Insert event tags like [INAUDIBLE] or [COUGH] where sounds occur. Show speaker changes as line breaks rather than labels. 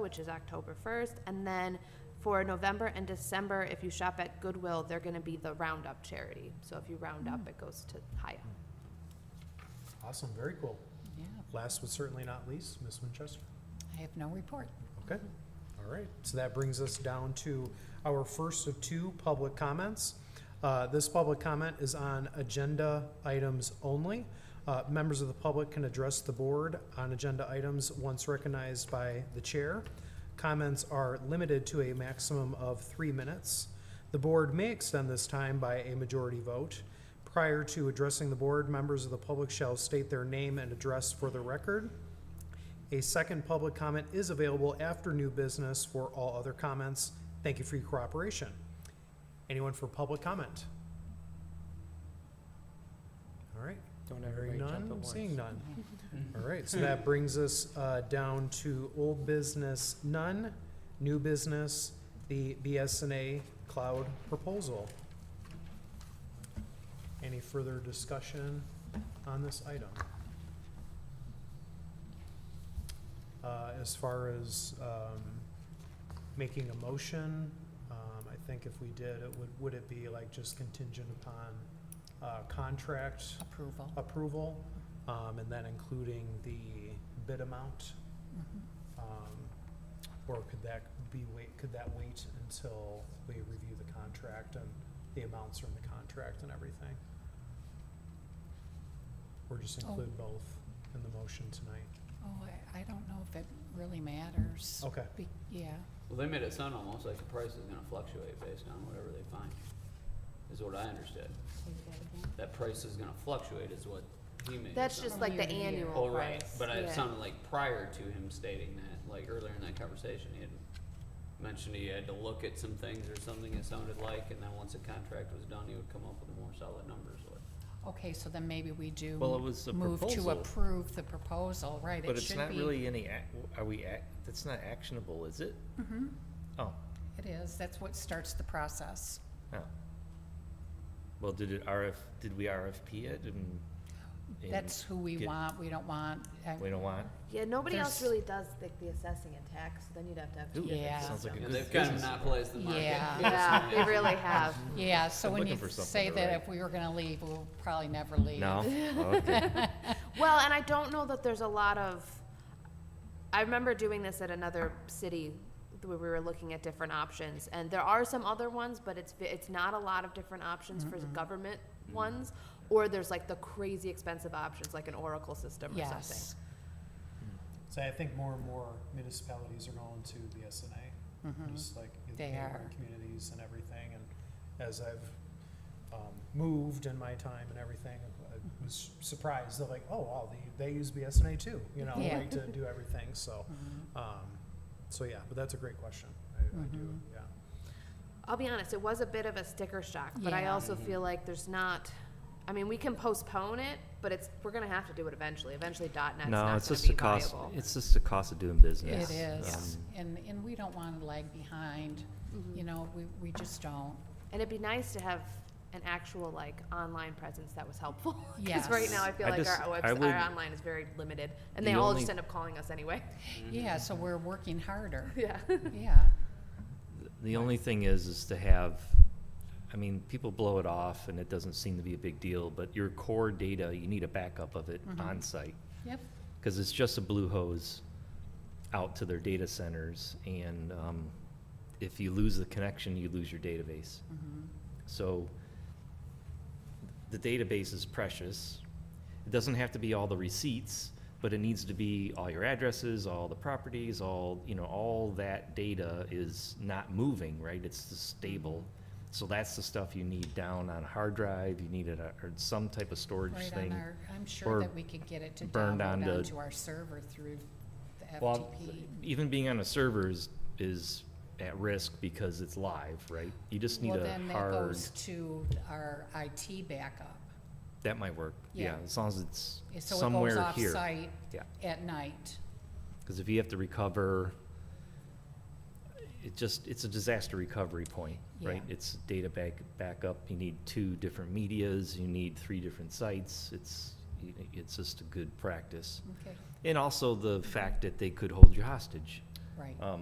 which is October first, and then for November and December, if you shop at Goodwill, they're gonna be the Roundup charity. So if you round up, it goes to Haya.
Awesome, very cool.
Yeah,
Last but certainly not least, Ms. Winchester.
I have no report.
Okay, all right. So that brings us down to our first of two public comments. Uh, This public comment is on agenda items only. Uh, Members of the public can address the board on agenda items once recognized by the chair. Comments are limited to a maximum of three minutes. The board may extend this time by a majority vote. Prior to addressing the board, members of the public shall state their name and address for the record. A second public comment is available after new business for all other comments. Thank you for your cooperation. Anyone for public comment? All right,
Don't
hearing
everybody jump at
none,
once.
seeing none. All right, so that brings us uh, down to old business, none, new business, the BSNA cloud proposal. Any further discussion on this item? Uh, As far as um, making a motion, um, I think if we did, it would, would it be like just contingent upon uh, contract
Approval.
approval, um, and then including the bid amount?
Mhm.
um, Or could that be wait, could that wait until we review the contract and the amounts from the contract and everything? Or just
Oh.
include both in the motion tonight?
Oh, I, I don't know if it really matters.
Okay,
Be- Yeah,
Well, they made it sound almost like the price is gonna fluctuate based on whatever they find, is what I understood. That price is gonna fluctuate is what he made it
That's
sound
just
From
like the
year to year.
annual price.
Oh, right, but it
Yeah.
sounded like prior to him stating that, like earlier in that conversation, he had mentioned he had to look at some things or something it sounded like, and then once the contract was done, he would come up with more solid numbers, or.
okay, so then maybe we do.
Well, it was a
Move to
proposal.
approve the proposal, right,
But
it
it's
should
not
be-
really any, ac- are we, ac- that's not actionable, is it?
Mhm,
Oh,
It is, that's what starts the process.
no. Well, did it RF, did we RFP it and? and
That's who we
get-
want, we don't want, uh,
We don't want?
Yeah, nobody else
There's-
really does the, the assessing and tax, then you'd have to have two
Ooh,
different
Yeah.
systems.
Sounds like a
You know,
good
they've kind of
business.
monopolized the market.
Yeah.
Yeah, they
[LAUGHS]
really have.
yeah, so
I'm
when you
looking for something
say
to
that
write.
if we were gonna leave, we'll probably never leave.
No?
[LAUGHS]
Okay.
Well, and I don't know that there's a lot of, I remember doing this at another city where we were looking at different options, and there are some other ones, but it's, it's not a lot of different options for the government ones, or there's like the crazy expensive options, like an Oracle system or something.
Yes.
so I think more and more municipalities are going to BSNA,
Mhm.
just like in
They
neighboring
are.
communities and everything, and as I've um, moved in my time and everything,
Mm-hmm.
I was surprised, they're like, oh, wow, they, they use BSNA too, you know,
Yeah.
like to do everything, so,
Mhm.
um, so yeah, but that's a great question, I, I do,
Mhm.
yeah.
I'll be honest, it was a bit of a sticker shock, but I
Yeah.
also feel like there's not, I mean, we can postpone it, but it's, we're gonna have to do it eventually. Eventually dot net's
No,
not
it's
gonna
just the
be
cost,
viable.
it's just the cost of doing business.
It is,
Um,
and, and we don't wanna lag behind,
Mm-hmm.
you know, we, we just don't.
And it'd be nice to have an actual like online presence that was helpful. [LAUGHS] Because
Yes.
right now I feel
I
like
just-
our,
I
webs-
would-
our online is very limited, and
The
they all
only-
just end up calling us anyway. [LAUGHS]
Mm-hmm.
Yeah, so we're working harder,
Yeah.
yeah.
The only thing is, is to have, I mean, people blow it off and it doesn't seem to be a big deal, but your core data, you need a backup of it
Mhm.
on site
Yep,
Because it's just a blue hose out to their data centers and, um, if you lose the connection, you lose your database.
mhm,
So the database is precious. It doesn't have to be all the receipts, but it needs to be all your addresses, all the properties, all, you know, all that data is not moving, right? It's just stable. So that's the stuff you need down on a hard drive, you need it, uh, or some type of storage
right on
thing.
our, I'm
or
sure that we could get it to
burned
download
onto-
onto our server through the
Well,
FTP.
even being on a server is, is at risk because it's live, right? You just need
Well,
a
then that
hard,
goes to our IT backup,
that might work, yeah,
Yeah.
as long as it's
so it
somewhere
goes
here.
off-site
Yeah.
at night.
Because if you have to recover, it just, it's a disaster recovery point, right?
Yeah.
It's data back, backup, you need two different medias, you need three different sites, it's, it's just a good practice.
Okay,
And also the fact that they could hold you hostage.
right.
Um,